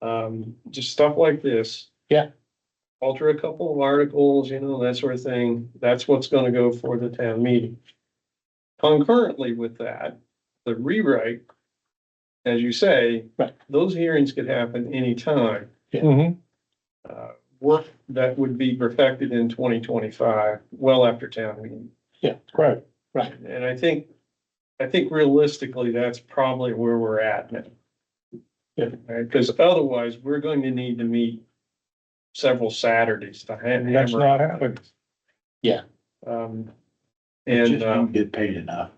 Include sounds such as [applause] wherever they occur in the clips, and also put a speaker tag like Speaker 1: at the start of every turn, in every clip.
Speaker 1: Um, just stuff like this.
Speaker 2: Yeah.
Speaker 1: Alter a couple of articles, you know, that sort of thing. That's what's gonna go for the town meeting. Concurrently with that, the rewrite, as you say.
Speaker 2: Right.
Speaker 1: Those hearings could happen anytime.
Speaker 3: Mm-hmm.
Speaker 1: Uh, work that would be perfected in twenty twenty-five, well after town meeting.
Speaker 2: Yeah, correct. Right.
Speaker 1: And I think, I think realistically, that's probably where we're at now.
Speaker 2: Yeah.
Speaker 1: Right, because otherwise, we're going to need to meet several Saturdays to ha-
Speaker 2: That's
Speaker 1: hammer.
Speaker 2: not happening.
Speaker 1: Um,
Speaker 3: Just
Speaker 1: and,
Speaker 3: don't
Speaker 1: um,
Speaker 3: Get paid
Speaker 2: [laughs]
Speaker 3: enough.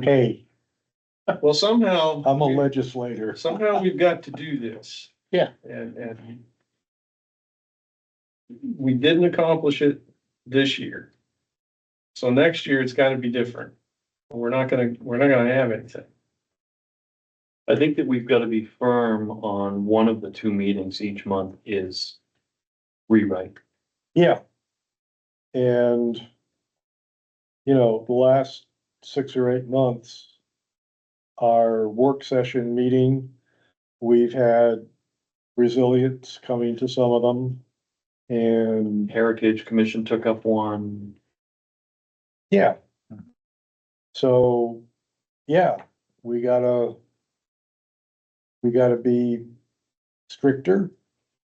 Speaker 2: Hey,
Speaker 1: well, somehow.
Speaker 3: I'm a legislator.
Speaker 1: Somehow we've got to do this.
Speaker 2: Yeah.
Speaker 1: And, and we didn't accomplish it this year. So next year, it's gotta be different. We're not gonna, we're not gonna have anything.
Speaker 4: I think that we've got to be firm on one of the two meetings each month is rewrite.
Speaker 2: yeah. And, you know, the last six or eight months, our work session meeting, we've had resilience coming to some of them. And,
Speaker 4: Heritage Commission took up one.
Speaker 2: yeah. So, yeah, we gotta, we gotta be stricter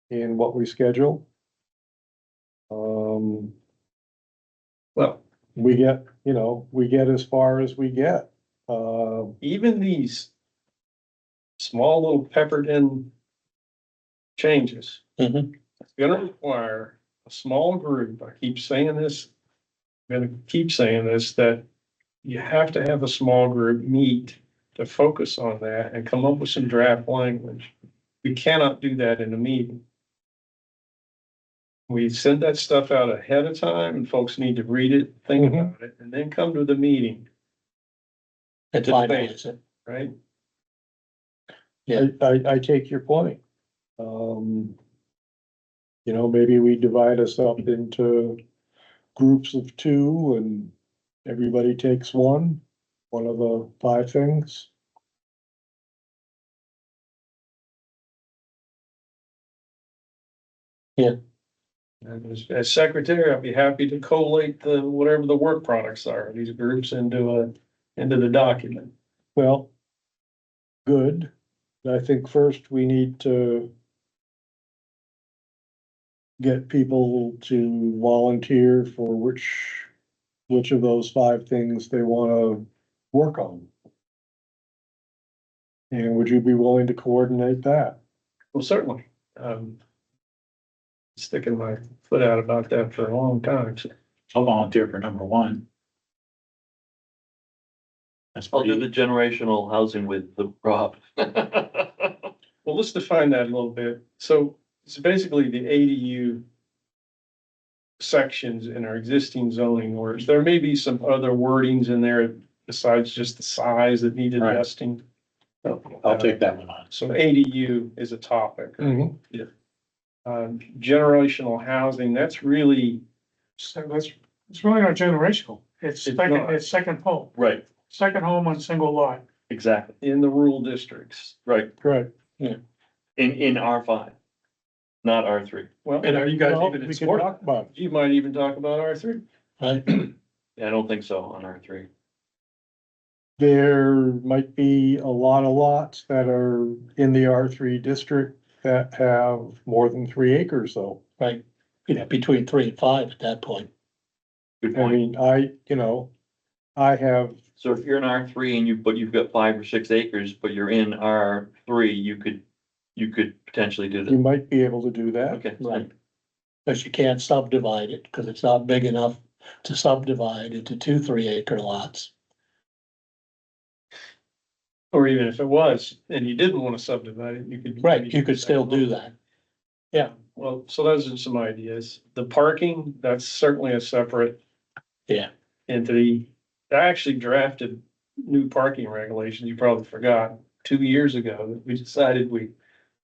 Speaker 2: in what we schedule. Um,
Speaker 1: Well,
Speaker 2: we get, you know, we get as far as we get. Uh,
Speaker 1: even these small little peppered in changes.
Speaker 2: Mhm.
Speaker 1: It's gonna require a small group, I keep saying this, I'm gonna keep saying this, that you have to have a small group meet to focus on that and come up with some draft language. We cannot do that in a meeting. We send that stuff out ahead of time and folks need to read it, think
Speaker 2: Mhm.
Speaker 1: about it, and then come to the meeting
Speaker 5: And to
Speaker 1: finalize
Speaker 5: finalize it.
Speaker 1: right?
Speaker 2: I, I, I take your point. Um, you know, maybe we divide us up into groups of two and everybody takes one, one of the five things.
Speaker 1: And as- as secretary, I'd be happy to collate the, whatever the work products are, these groups into a, into the document.
Speaker 2: Well, good. I think first we need to get people to volunteer for which, which of those five things they wanna work on. And would you be willing to coordinate that?
Speaker 1: Well, certainly, um. Sticking my foot out about that for a long time. so.
Speaker 3: I'll volunteer for number one. That's
Speaker 4: I'll do the
Speaker 3: pretty,
Speaker 4: generational housing with the [laughs] Rob.
Speaker 1: Well, let's define that a little bit. So it's basically the ADU. Sections in our existing zoning orders. There may be some other wordings in there besides just the size that needed
Speaker 3: Right.
Speaker 1: adjusting.
Speaker 3: I'll take that one on.
Speaker 1: So ADU is a topic.
Speaker 2: Mm-hmm.
Speaker 1: um, generational housing, that's really,
Speaker 6: So that's, it's really not generational. It's
Speaker 1: It's
Speaker 6: second,
Speaker 1: not.
Speaker 6: it's second home,
Speaker 4: Right,
Speaker 6: second home on single lot.
Speaker 4: exactly,
Speaker 1: in the rural districts.
Speaker 4: right,
Speaker 2: Correct.
Speaker 4: in, in R five, not R three.
Speaker 1: Well,
Speaker 5: are you
Speaker 2: Well, we can talk about it.
Speaker 1: you might even talk about R three.
Speaker 4: I don't think so on R three.
Speaker 2: There might be a lot of lots that are in the R three district that have more than three acres though.
Speaker 5: Right, you know, between three and five at that point.
Speaker 4: Good
Speaker 2: I
Speaker 4: point.
Speaker 2: mean, I, you know, I have,
Speaker 4: So if you're in R three and you, but you've got five or six acres, but you're in R three, you could, you could potentially do
Speaker 2: you
Speaker 4: that.
Speaker 2: might be able to do that.
Speaker 4: Okay.
Speaker 5: Right. Because you can't subdivide it, because it's not big enough to subdivide into two, three acre lots.
Speaker 1: Or even if it was, and you didn't want to subdivide it, you could.
Speaker 5: Right, you could still do that.
Speaker 1: Well, so those are some ideas. The parking, that's certainly a separate.
Speaker 5: Yeah.
Speaker 1: Entity. I actually drafted new parking regulations. You probably forgot two years ago that we decided we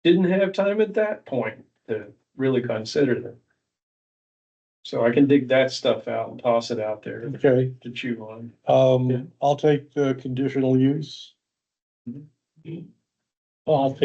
Speaker 1: didn't have time at that point to really consider them. So I can dig that stuff out and toss it out there
Speaker 2: Okay,
Speaker 1: to chew on.
Speaker 2: um, I'll take the conditional use.
Speaker 5: Well, I'll take